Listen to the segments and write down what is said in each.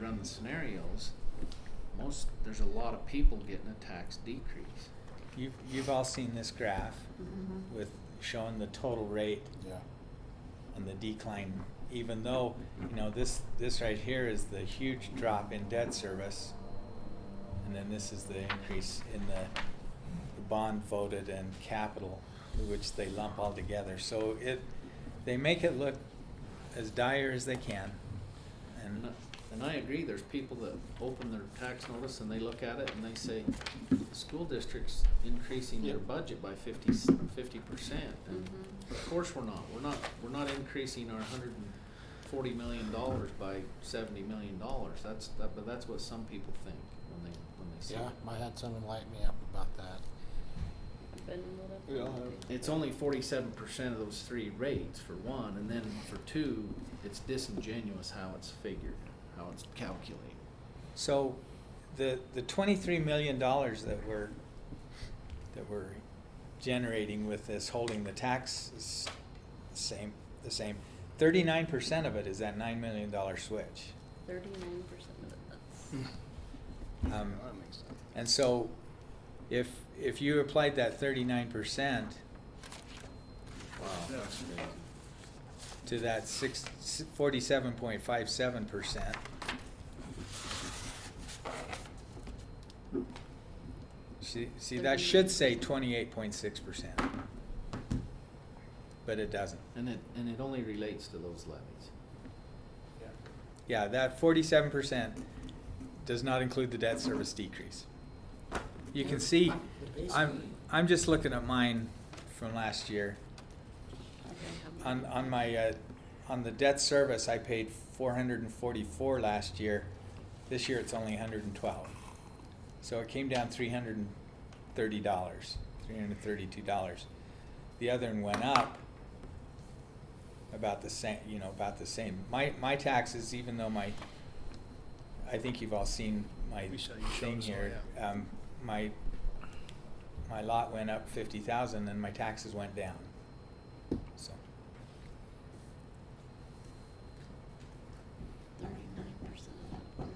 down the scenarios, most, there's a lot of people getting a tax decrease. You've, you've all seen this graph Mhm. with showing the total rate Yeah. on the decline, even though, you know, this, this right here is the huge drop in debt service. And then this is the increase in the, the bond voted and capital, which they lump all together. So it, they make it look as dire as they can. And, And I- and I agree, there's people that open their tax notice and they look at it and they say, the school district's increasing their Yeah. budget by fifty, fifty percent. And Mhm. of course we're not, we're not, we're not increasing our hundred and forty million dollars by seventy million dollars. That's, that, but that's what some people think when they, when they see Yeah, it. I had someone light me up about that. Been lit up. We all have. It's only forty-seven percent of those three rates for one, and then for two, it's disingenuous how it's figured, how it's calculated. so the, the twenty-three million dollars that we're, that we're generating with this, holding the taxes same, the same, thirty-nine percent of it is that nine million dollar switch. Thirty-nine percent of it, Hmm. that's, Um, That makes sense. And so, if, if you applied that thirty-nine percent Wow. That's crazy. to that six, forty-seven point five seven percent, see, see, that should say twenty-eight point six percent. But it doesn't. And it, and it only relates to those levies. Yeah, that forty-seven percent does not include the debt service decrease. You can see, I'm, I'm just looking at mine from last year. okay. On, on my, uh, on the debt service, I paid four hundred and forty-four last year. This year, it's only hundred and twelve. So it came down three hundred and thirty dollars, three hundred and thirty-two dollars. The other one went up about the same, you know, about the same. My, my taxes, even though my, I think you've all seen my We saw you showed thing us all, here. yeah. Um, my, my lot went up fifty thousand and my taxes went down, so. Thirty-nine percent of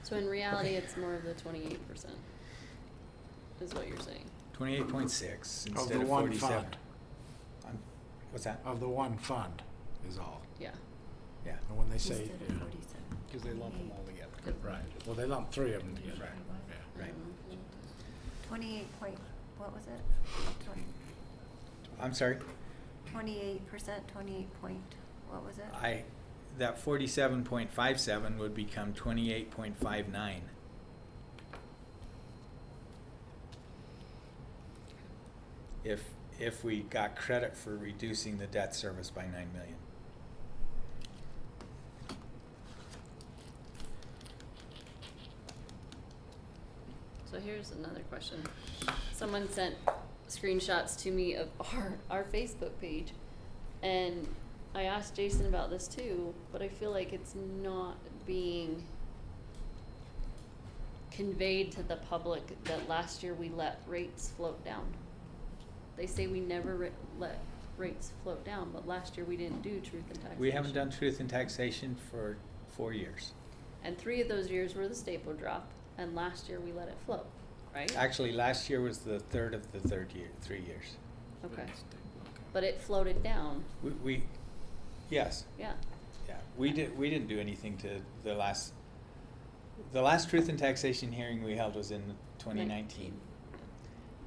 it. So in reality, it's more of the twenty-eight percent, is what you're saying. Twenty-eight point six Of the instead of one forty-seven. fund. Um, What's that? Of the one fund is all. Yeah. Yeah. And when they say. Instead of forty-seven. Cause they lump them all together. Yep. Right. Well, they lump three of them together. Right. Yeah. Right. Mm-hmm. Twenty-eight point, what was it? I'm sorry, Twenty-eight percent, twenty-eight point, what was it? I, that forty-seven point five seven would become twenty-eight point five nine. If, if we got credit for reducing the debt service by nine million. So here's another question. Someone sent screenshots to me of our, our Facebook page, and I asked Jason about this too, but I feel like it's not being conveyed to the public that last year we let rates float down. They say we never ri- let rates float down, but last year we didn't do truth and taxation. We haven't done truth in taxation for four years. And three of those years were the staple drop, and last year we let it float, right? Actually, last year was the third of the third year, three years. Okay. Okay. But it floated down, We, we, yes, yeah. Yeah, we did, we didn't do anything to the last, the last truth and taxation hearing we held was in twenty nineteen.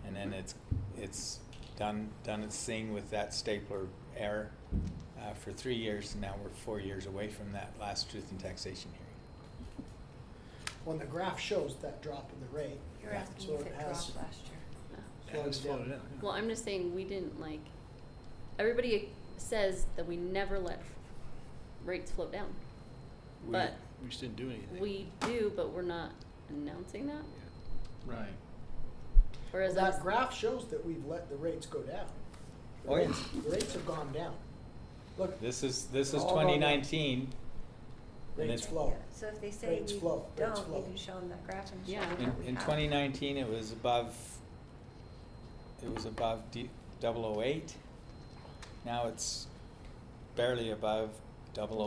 And then it's, it's done, done its thing with that stapler error, uh, for three years, and now we're four years away from that last truth and taxation hearing. When the graph shows that drop in the rate. You're asking so if it dropped has last year. Yeah. slowed down. Well, I'm just saying, we didn't like, everybody says that we never let rates float down. We- But We just didn't do anything. we do, but we're not announcing that, Right. whereas I That was- graph shows that we've let the rates go down. The Oh, yeah. rates- The rates have gone down. Look, This is, this is All gone down. twenty nineteen, and rates it's- flow. So if they say Rates we flow, don't, rates flow. you can show them that graph and show Yeah. them in, what we in have. twenty nineteen, it was above, it was above D, double oh eight. Now it's barely above double oh